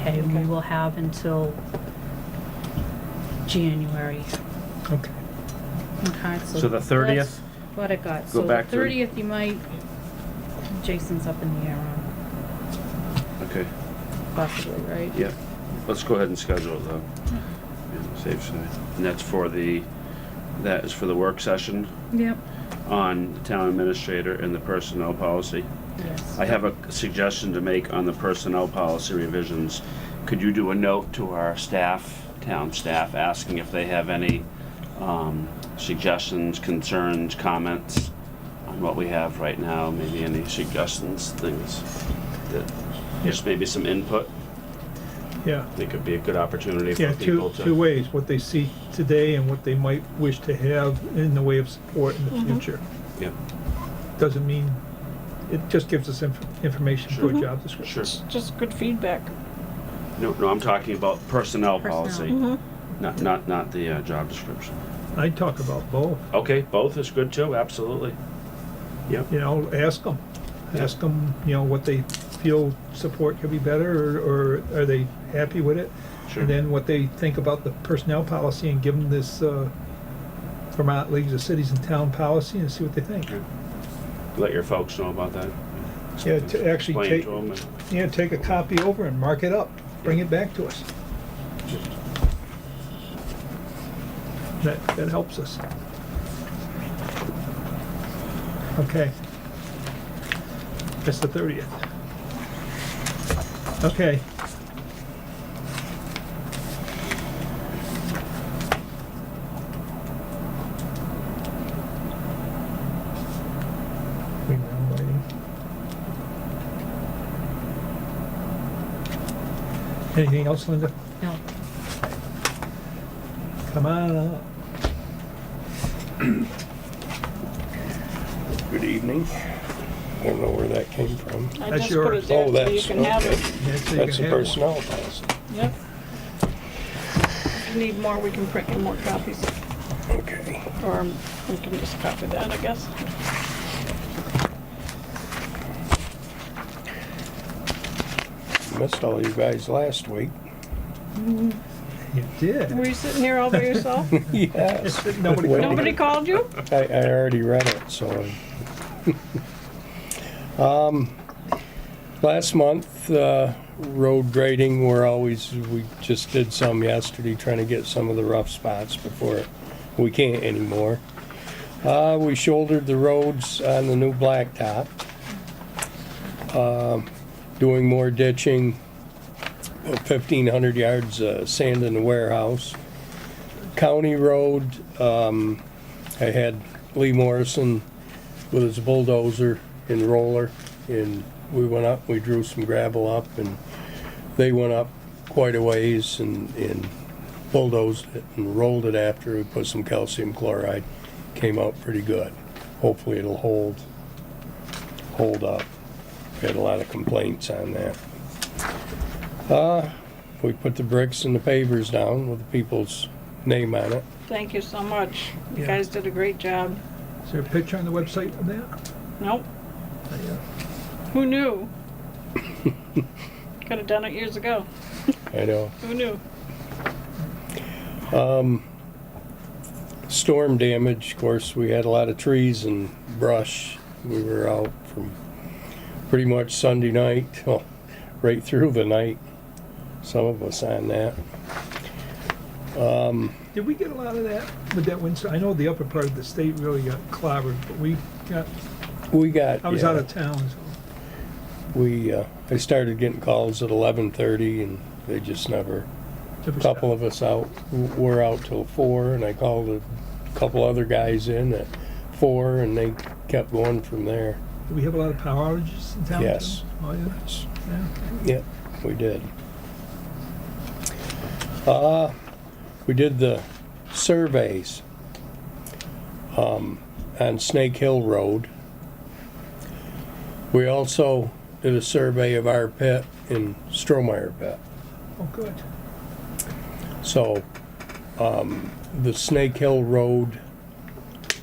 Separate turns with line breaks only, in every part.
okay, and we
Okay.
will have until January.
Okay.
Okay,
So the 30th?
that's What I got.
Go
So the
back to-
thirtieth, you might, Jason's up in the air on
Okay,
possibly, right?
yeah. Let's go ahead and schedule it though. Yeah, Safe side. And that's for the, that is for the work session
Yep,
on the town administrator and the personnel policy.
yes.
I have a suggestion to make on the personnel policy revisions. Could you do a note to our staff, town staff, asking if they have any um, suggestions, concerns, comments on what we have right now? Maybe any suggestions, things that, just maybe some input?
Yeah,
I think it'd be a good opportunity
yeah,
for people
two,
to.
two ways, what they see today and what they might wish to have in the way of support in the future.
Yeah,
Doesn't mean, it just gives us inf- information for a job description.
sure.
It's just good feedback.
No, no, I'm talking about personnel policy,
Personnel.
not, not, not the uh, job description.
I talk about both,
Okay, both is good too, absolutely. Yep.
you know, ask them, ask them, you know, what they feel support could be better, or, or are they happy with it?
Sure.
And then what they think about the personnel policy and give them this, uh, Vermont Leagues of Cities and Town policy and see what they think.
let your folks know about that.
Yeah, to actually
Explain
take-
to 'em and-
Yeah, take a copy over and mark it up, bring it back to us. That, that helps us. Okay. That's the thirtieth. Okay. We now waiting. Anything else, Linda?
No,
Come on up.
Good evening. I don't know where that came from.
I
That's
just put
yours.
it
Oh,
there so you
that's,
can have
okay.
it.
Yeah, so you
That's
can
the
have one.
personnel policy.
Yep. If you need more, we can print you more copies,
Okay.
or we can just copy that, I guess.
Missed all you guys last week.
You
Were
did.
you sitting here all by yourself?
Yes.
Nobody
Well,
Nobody called you?
I, I already read it, so. I- Um, Last month, uh, road grading, we're always, we just did some yesterday, trying to get some of the rough spots before we can't anymore. Uh, we shouldered the roads on the new blacktop. Um, Doing more ditching, fifteen hundred yards of sand in the warehouse. County road, um, I had Lee Morrison with his bulldozer and roller, and we went up, we drew some gravel up, and they went up quite a ways and, and bulldozed it and rolled it after we put some calcium chloride. Came out pretty good. Hopefully it'll hold, hold up. We had a lot of complaints on that. Uh, we put the bricks and the pavers down with the people's name on it.
Thank you so much. You
Yeah.
guys did a great job.
Is there a picture on the website of that?
Nope. Who knew? Could have done it years ago.
I know.
Who knew?
storm damage, of course, we had a lot of trees and brush. We were out from pretty much Sunday night, well, right through the night, some of us on that.
Did we get a lot of that with that windstorm? I know the upper part of the state really got clobbered, but we got,
We got,
I was
yeah,
out of town, so.
we, uh, I started getting calls at eleven thirty and they just never, a couple of us out, w- were out till four and I called a couple other guys in at four and they kept going from there.
Do we have a lot of power outages in town? too?
Yes.
Oh, yeah, yeah.
Yep, we did. Uh, we did the surveys, um, on Snake Hill Road. We also did a survey of our pit in Stromeyer Pit.
Oh, good.
So, um, the Snake Hill Road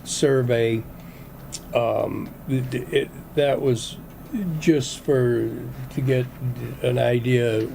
survey, um, th- th- it, that was just for, to get an idea